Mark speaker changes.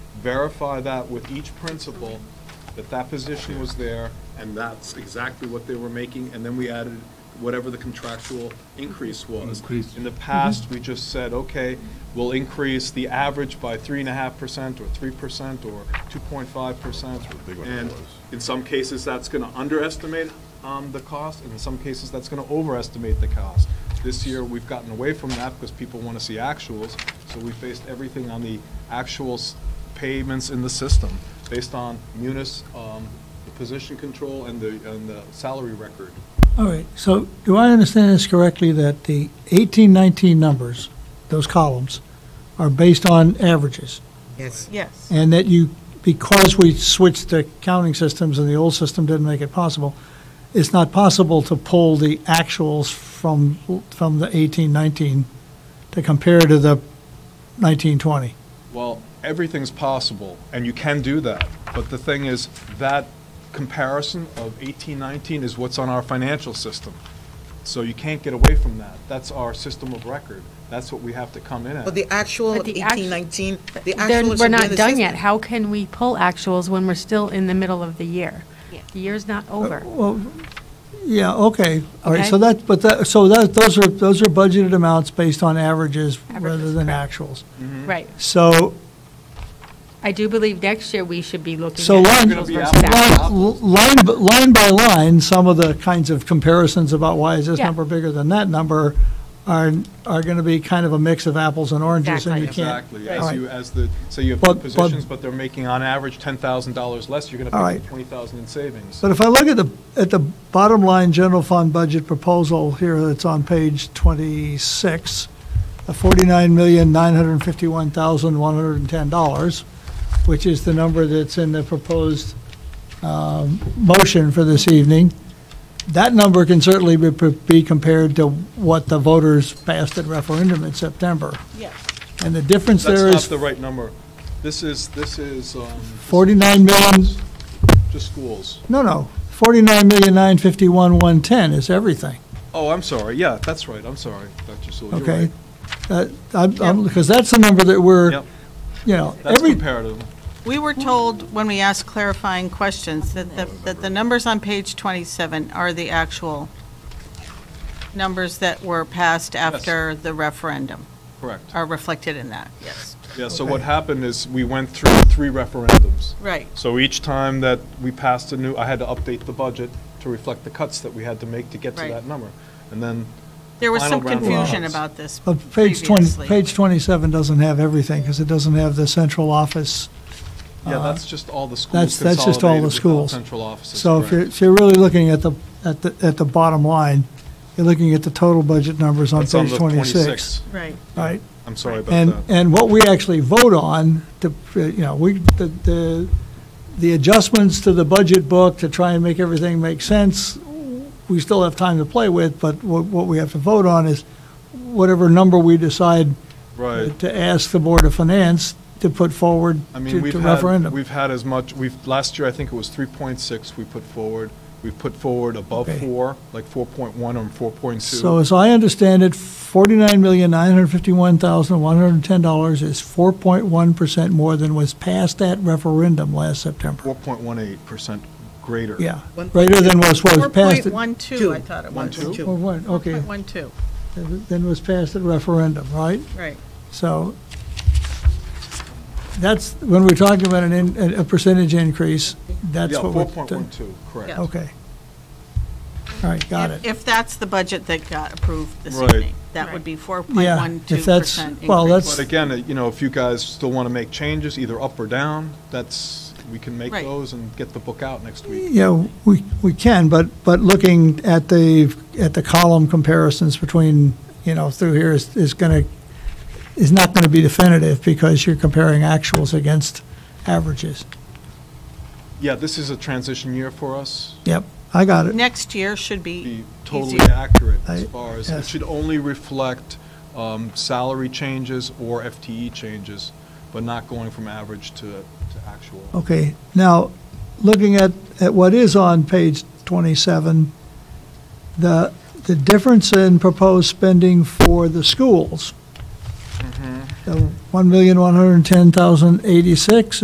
Speaker 1: verify that with each principal, that that position was there, and that's exactly what they were making, and then we added whatever the contractual increase was.
Speaker 2: Increase.
Speaker 1: In the past, we just said, okay, we'll increase the average by three and a half percent, or three percent, or two point five percent.
Speaker 3: That's what the big one
Speaker 1: And
Speaker 3: was.
Speaker 1: in some cases, that's gonna underestimate, um, the cost, and in some cases, that's gonna overestimate the cost. This year, we've gotten away from that because people wanna see actuals, so we based everything on the actuals payments in the system, based on munis, um, the position control and the, and the salary record.
Speaker 4: All right, so do I understand this correctly, that the eighteen, nineteen numbers, those columns, are based on averages?
Speaker 5: Yes.
Speaker 6: Yes.
Speaker 4: And that you, because we switched the counting systems and the old system didn't make it possible, it's not possible to pull the actuals from, from the eighteen, nineteen to compare to the nineteen, twenty?
Speaker 1: Well, everything's possible, and you can do that. But the thing is, that comparison of 1819 is what's on our financial system. So you can't get away from that. That's our system of record. That's what we have to come in
Speaker 5: But
Speaker 1: at.
Speaker 5: the actual
Speaker 6: But the act-
Speaker 5: eighteen nineteen, the
Speaker 6: They're-
Speaker 5: actual.
Speaker 6: We're not done yet. How can we pull actuals when we're still in the middle of the year? The year's not over.
Speaker 4: Yeah, okay, all right, so
Speaker 6: Okay.
Speaker 4: that, but that, so that, those are, those are budgeted amounts based on averages rather
Speaker 6: Averages,
Speaker 4: than
Speaker 6: correct.
Speaker 4: actuals.
Speaker 6: Right.
Speaker 4: So
Speaker 6: I do believe next year we should be looking
Speaker 4: So
Speaker 6: at
Speaker 4: line-
Speaker 6: actuals
Speaker 1: We're gonna be
Speaker 6: versus
Speaker 1: apples to
Speaker 6: actuals.
Speaker 4: Well, Line, b- line by line, some of the kinds of comparisons about why is this
Speaker 6: Yeah.
Speaker 4: number bigger than that number are, are going to be kind of a mix of apples and oranges, and you can't.
Speaker 1: Exactly.
Speaker 4: All
Speaker 1: As
Speaker 4: right.
Speaker 1: you, as the, say you have two
Speaker 4: But- but-
Speaker 1: positions, but they're making on average $10,000 less, you're going
Speaker 4: All
Speaker 1: to pay
Speaker 4: right.
Speaker 1: 20,000 in savings.
Speaker 4: But if I look at the, at the bottom line general fund budget proposal here that's on page 26, the $49,951,110, which is the number that's in the proposed um, motion for this evening, that number can certainly be- be compared to what the voters passed at referendum in September.
Speaker 6: Yes.
Speaker 4: And the difference
Speaker 1: That's
Speaker 4: there
Speaker 1: not
Speaker 4: is
Speaker 1: the right number. This is, this is, um,
Speaker 4: 49 million,
Speaker 1: just schools.
Speaker 4: no, no, 49,951,110 is everything.
Speaker 1: Oh, I'm sorry. Yeah, that's right. I'm sorry, Dr. Sewell. You're
Speaker 4: Okay?
Speaker 1: right.
Speaker 4: Because that's the number that we're,
Speaker 1: Yep,
Speaker 4: you know,
Speaker 1: that's
Speaker 4: every,
Speaker 1: comparative.
Speaker 7: We were told, when we asked clarifying questions, that the, that the numbers on page 27 are the actual numbers that were passed after the referendum,
Speaker 1: Correct.
Speaker 7: are reflected in that, yes.
Speaker 1: Yeah, so what happened is we went through three referendums.
Speaker 7: Right.
Speaker 1: So each time that we passed a new, I had to update the budget to reflect the cuts that we had to make to get to
Speaker 7: Right.
Speaker 1: that number. And then,
Speaker 7: There was
Speaker 1: Final
Speaker 7: some
Speaker 1: round of
Speaker 7: confusion
Speaker 1: votes.
Speaker 7: about this
Speaker 4: uh, page 20,
Speaker 7: previously.
Speaker 4: page 27 doesn't have everything, because it doesn't have the central office.
Speaker 1: yeah, that's just all the schools
Speaker 4: Uh-huh. That's- that's just all the
Speaker 1: consolidated with
Speaker 4: schools.
Speaker 1: central offices.
Speaker 4: So if
Speaker 1: correct.
Speaker 4: you're, if you're really looking at the, at the, at the bottom line, you're looking at the total budget numbers on
Speaker 1: That's on
Speaker 4: page
Speaker 1: the
Speaker 4: 26.
Speaker 1: 26.
Speaker 7: Right.
Speaker 4: Right?
Speaker 1: I'm sorry
Speaker 4: And,
Speaker 1: about that.
Speaker 4: and what we actually vote on, to, uh, you know, we, the, the, the adjustments to the budget book to try and make everything make sense, we still have time to play with, but what, what we have to vote on is whatever number we decide
Speaker 1: Right.
Speaker 4: to ask the Board of Finance to put forward
Speaker 1: I
Speaker 4: to
Speaker 1: mean, we've
Speaker 4: to
Speaker 1: had,
Speaker 4: referendum.
Speaker 1: we've had as much, we've, last year, I think it was 3.6 we put forward. We've put forward above
Speaker 4: Okay.
Speaker 1: four, like 4.1 or 4.2.
Speaker 4: So as I understand it, forty-nine million, nine hundred fifty-one thousand, one hundred and ten dollars is four point one percent more than was passed at referendum last September.
Speaker 1: 4.18% greater.
Speaker 4: Yeah,
Speaker 5: One-
Speaker 4: greater than was, was passed. at-
Speaker 7: 4.12, I thought it was.
Speaker 5: Two.
Speaker 4: Well, what, okay,
Speaker 7: 4.12,
Speaker 4: then was passed at referendum, right?
Speaker 7: right.
Speaker 4: So that's, when we're talking about an, in- a percentage increase, that's
Speaker 1: Yeah,
Speaker 4: what we're.
Speaker 1: 4.12, correct.
Speaker 7: Yeah.
Speaker 4: Okay. All right, got
Speaker 7: If-
Speaker 4: it.
Speaker 7: If that's the budget that got approved this
Speaker 1: Right.
Speaker 7: evening, that would be 4.12%
Speaker 4: Yeah, if that's-
Speaker 7: increase.
Speaker 4: well, that's-
Speaker 1: But again, uh, you know, if you guys still want to make changes, either up or down, that's, we can make
Speaker 7: Right.
Speaker 1: those and get the book out next week.
Speaker 4: Yeah, we, we can, but, but looking at the, at the column comparisons between, you know, through here is, is gonna, is not gonna be definitive because you're comparing actuals against averages.
Speaker 1: Yeah, this is a transition year for us.
Speaker 4: Yep, I got it.
Speaker 7: Next year should
Speaker 1: Be
Speaker 7: be
Speaker 1: totally
Speaker 7: easier.
Speaker 1: accurate as
Speaker 4: I-
Speaker 1: far as, it
Speaker 4: yes.
Speaker 1: should only reflect um, salary changes or FTE changes, but not going from average to, to actual.
Speaker 4: Okay, now, looking at, at what is on page 27, the, the difference in proposed spending for the schools, the 1,110,086